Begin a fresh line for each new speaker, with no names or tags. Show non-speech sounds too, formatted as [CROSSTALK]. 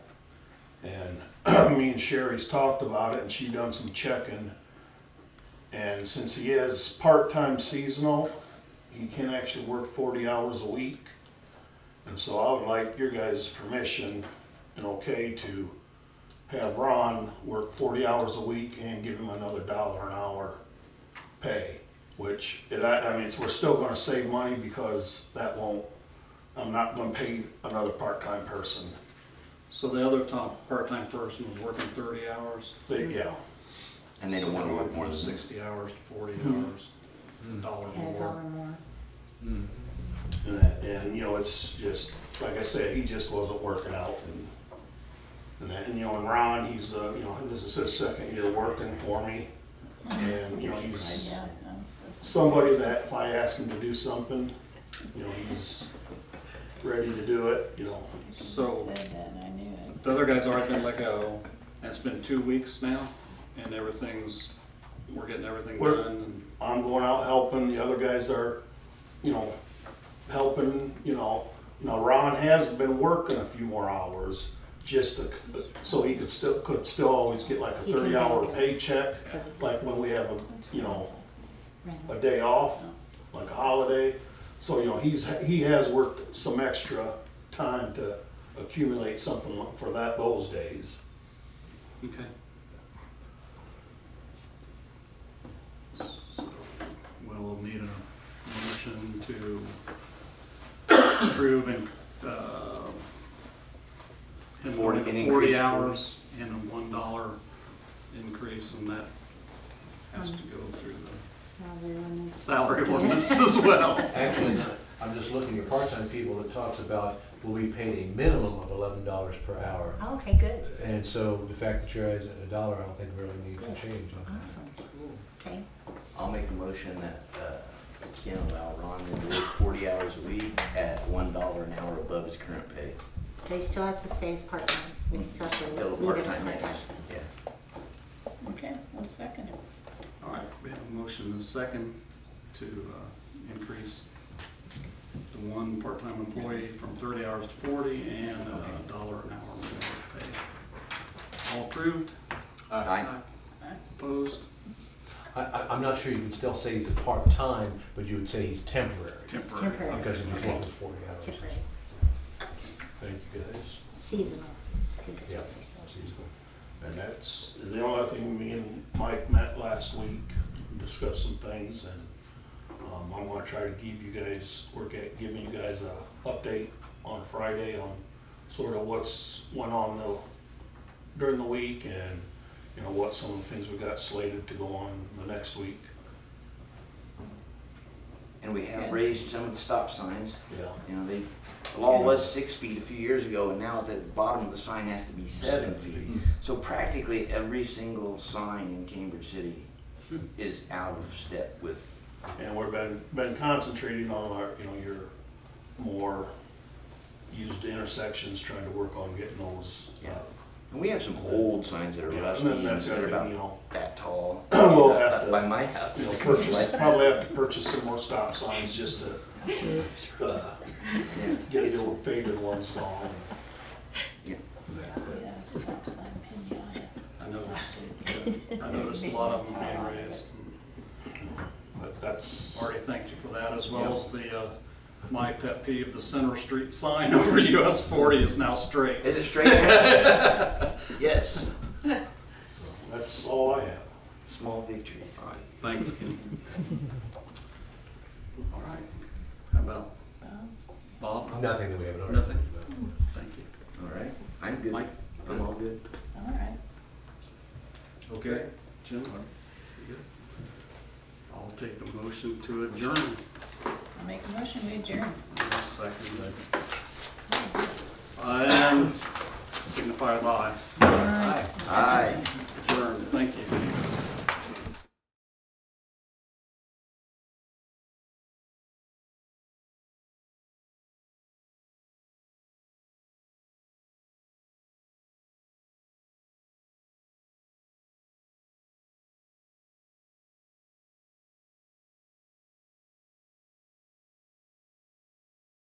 And [CLEARS THROAT] me and Sherry's talked about it and she done some checking. And since he is part-time seasonal, he can actually work forty hours a week. And so I would like your guys' permission and okay to have Ron work forty hours a week and give him another dollar an hour pay. Which, it, I, I mean, it's, we're still gonna save money because that won't, I'm not gonna pay another part-time person.
So the other top, part-time person was working thirty hours.
But, yeah,
And they don't want to work more than six.
Sixty hours to forty hours, a dollar
And a
more.
dollar more.
and, that- and, you know, it's just, like I said, he just wasn't working out and, and that, and, you know, and Ron, he's, uh, you know, this is his second year working for me. And, you know, he's,
Yeah, I'm so-
somebody that if I ask him to do something, you know, he's ready to do it, you know.
So-
Said that, and I knew it.
The other guy's already been let go, and it's been two weeks now, and everything's, we're getting everything
We're-
done, and
I'm going out helping, the other guys are, you know, helping, you know. Now Ron has been working a few more hours just to, so he could still, could still always get like a
He can
thirty hour
make it.
paycheck,
Because of-
like when we have a, you know, a day off, like a holiday. So, you know, he's, he has worked some extra time to accumulate something for that, those days.
Okay. We'll need a motion to approve and, uh, him
Forty-
working
an increase
forty
for-
hours and a one dollar increase, and that has to go through the
Salary ordinance.
salary ordinance
[LAUGHS]
as well.
Actually, I'm just looking at part-time people that talks about, will be paid a minimum of eleven dollars per hour.
Oh, Okay, good,
And so the fact that you're at a dollar, I don't think really needs to change on that.
awesome. Okay,
I'll make a motion that uh, we can allow Ron to work forty hours a week at one dollar an hour above his current pay.
but he still has to stay as part-time, we still have to
Double
leave him
part-time hours,
part-time.
yeah.
Okay, one second. it.
All right, we have a motion and a second to uh, increase the one part-time employee from thirty hours to forty and uh, a dollar an hour minimum pay. All approved?
Aye.
Opposed?
I, I, I'm not sure you can still say he's a part-time, but you would say he's temporary.
Temporary.
Temporary.
Because he's
Okay.
working forty hours.
Temporary,
Thank you, guys.
Seasonal, I think is
Yeah.
what they said.
Seasonal.
And that's the only thing me and Mike met last week, and discussed some things, and um, I want to try to give you guys, we're get- giving you guys a update on Friday on sort of what's went on the, during the week and, you know, what some of the things we got slated to go on the next week,
And we have
Good.
raised some of the stop signs.
yeah.
You know, they, the law was six feet a few years ago, and now it's at the bottom of the sign has to be seven feet. So practically every single sign in Cambridge City is out of step with,
And we've been, been concentrating on our, you know, your more used intersections, trying to work on getting those uh,
Yeah.
up.
and we have some old signs that are
Yeah,
rusty
and then
and
that's
they're
everything,
about
you know.
that tall.
[COUGHS] We'll have to-
By my house.
you know,
there's a
purchase,
light-
probably have to purchase some more stop signs just to, uh,
yeah,
get
it's-
the old faded ones gone.
yeah.
Yeah, stop sign, pinata.
I
[LAUGHS]
noticed, I noticed a lot of them being raised.
But that's,
Marty, thank you for that, as well as the, uh, my pet peeve, the Center Street sign [LAUGHS] over US forty is now straight.
Is it straight? down? Yes,
so that's all I have.
small victories.
All right, thanks, Kenny. All right, how about Bob?
Nothing that we haven't already.
Nothing.
talked about.
Thank you.
All right, I'm good.
Mike?
I'm all good.
All right.
Okay. Jim? you good? I'll take a motion to adjourn.
I'll make a motion, we adjourn.
I'll Second that. And signify by
All right.
Aye.
adjourn, thank you.